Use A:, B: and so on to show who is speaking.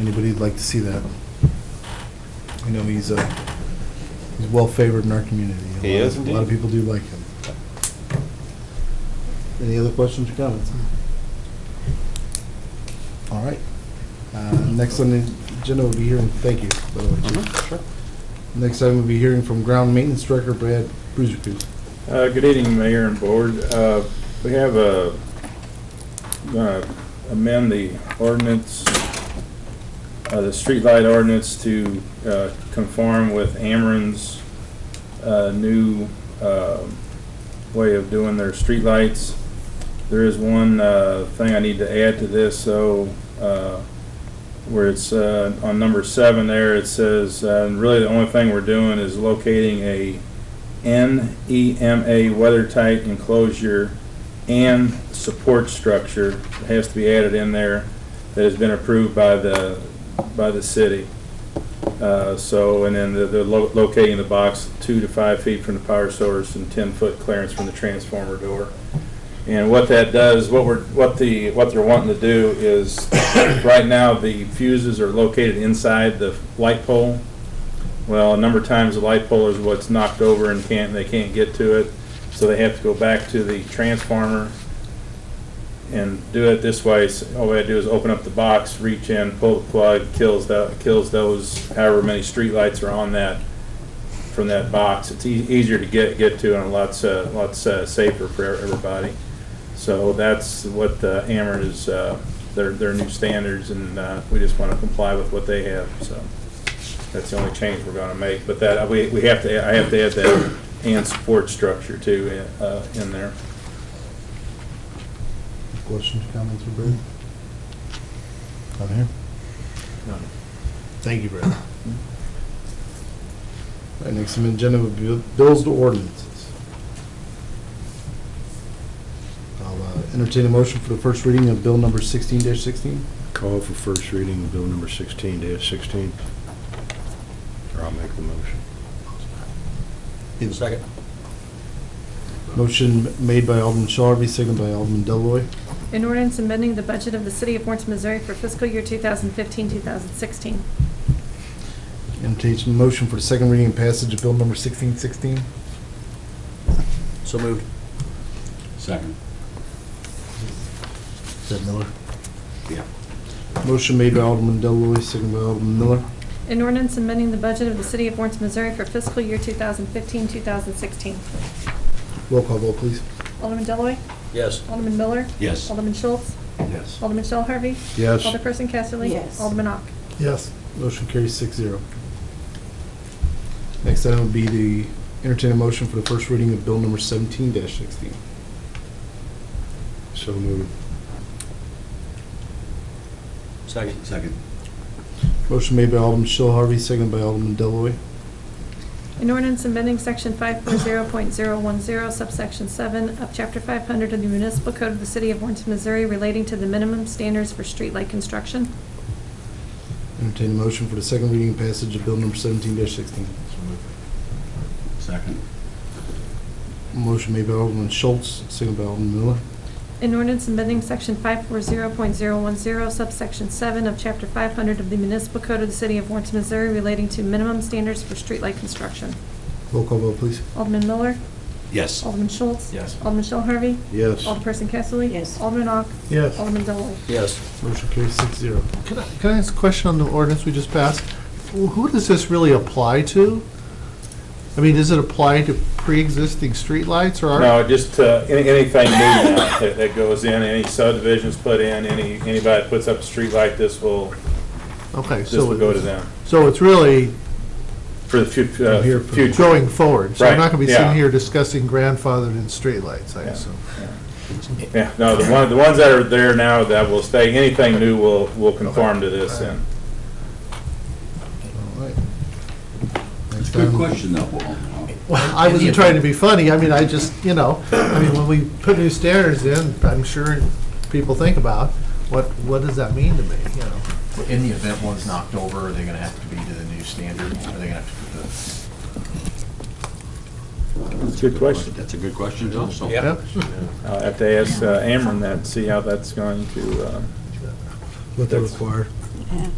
A: Anybody'd like to see that? I know he's, uh, he's well-favored in our community. A
B: He
A: lot of-
B: is
A: A lot of
B: indeed.
A: people do like him. Any other questions or comments? All right. Uh, Next on the agenda will be hearing, thank you, by the way, Chief.
B: Uh-huh,
A: Next item will be hearing from ground maintenance director Brad Brusikus.
C: Uh, Good evening, Mayor and Board. Uh, We have a, uh, amend the ordinance, uh, the streetlight ordinance to uh, conform with Ameren's uh, new um, way of doing their streetlights. There is one uh, thing I need to add to this, so uh, where it's uh, on number seven there, it says, uh, really the only thing we're doing is locating a E NEMA weather-tight enclosure and support structure has to be added in there that has been approved by the, by the city. Uh, So, and then the- the lo- locating the box two to five feet from the power source and 10-foot clearance from the transformer door. And what that does, what we're, what the, what they're wanting to do is, right now, the fuses are located inside the light pole. Well, a number of times the light pole is what's knocked over and can't, they can't get to it, so they have to go back to the transformer and do it this way. So All they do is open up the box, reach in, pull the plug, kills that, kills those however many streetlights are on that, from that box. It's ea- easier to get, get to and a lots, uh, lots uh, safer for everybody. So that's what uh, Ameren is, uh, their, their new standards, and uh, we just want to comply with what they have, so. That's the only change we're gonna make, but that, we, we have to, I have to add that and support structure too, uh, in there.
A: Questions, comments for Brad? None here? None. Thank you, Brad. All right, next on the agenda would be bills to ordinances. I'll uh, entertain a motion for the first reading of bill number sixteen sixteen.
B: Call for first reading of bill number sixteen dash sixteen. Or I'll make the motion.
A: Second. Motion made by Alderman Shelby, seconded by Alderman Deloy.
D: An ordinance amending the budget of the City of Lawrence, Missouri for fiscal year 2015, 2016.
A: Entertain a motion for the second reading and passage of bill number sixteen sixteen.
E: So moved.
F: Second.
A: Is that Miller?
F: Yeah.
A: Motion made by Alderman Deloy, seconded by Alderman Miller.
D: An ordinance amending the budget of the City of Lawrence, Missouri for fiscal year 2015, 2016.
A: Roll call vote, please.
D: Alderman Deloy,
E: Yes.
D: Alderman Miller,
F: Yes.
D: Alderman Schultz,
F: Yes.
D: Alderman Shell Harvey,
B: Yes.
D: Alderperson Casterly.
G: Yes.
D: Alderman Ock.
A: Yes. Motion carries six zero. Next item would be the entertain a motion for the first reading of bill number seventeen sixteen.
B: So moved.
E: Second.
F: Second.
A: Motion made by Alderman Shell Harvey, seconded by Alderman Deloy.
D: An ordinance amending section 540.010 subsection 7 of chapter 500 of the municipal code of the City of Lawrence, Missouri relating to the minimum standards for streetlight construction.
A: Entertain a motion for the second reading and passage of bill number seventeen sixteen.
F: Second.
A: Motion made by Alderman Schultz, seconded by Alderman Miller.
D: An ordinance amending section 540.010 subsection 7 of chapter 500 of the municipal code of the city of Lawrence, Missouri relating to minimum standards for streetlight construction.
A: Roll call vote, please.
D: Alderman Miller,
F: Yes.
E: Oh.
D: Alderman Schultz.
E: Yes.
D: Alderman Shell Harvey,
B: Yes.
D: Alderperson Kesslerlein.
G: Yes.
D: Alderman Ock,
A: Yes.
D: Alderman Deloy.
E: Yes.
A: Motion carries six zero.
H: Can I, can I ask a question on the ordinance we just passed? Wh- Who does this really apply to? I mean, does it apply to pre-existing streetlights or? are-
C: No, just, uh, any- anything new now that, that goes in, any subdivisions put in, any, anybody that puts up a streetlight, this will,
H: Okay,
C: this will go to
H: so,
C: them
H: so it's really
C: for the fu- uh,
A: Here for-
C: future.
H: going forward. So we're
C: Right,
H: not gonna be sitting
C: yeah.
H: here discussing grandfathered in streetlights, I
C: Yeah.
H: assume.
C: Yeah, no, the one, the ones that are there now that will stay, anything new will, will conform to this and.
A: All right. Next
F: It's a good
A: item-
F: question, though. Well,
H: Well, I wasn't trying to be funny, I mean, I just, you know, I mean, when we put new standards in, I'm sure people think about, what, what does that mean to me, you know?
E: In the event one's knocked over, are they gonna have to be to the new standard? Are they gonna have to put the?
C: That's a good question.
F: That's a good question, also.
H: Yeah.
C: I'll have to ask uh, Ameren that, see how that's going to, uh,
A: What they require.
G: Yeah.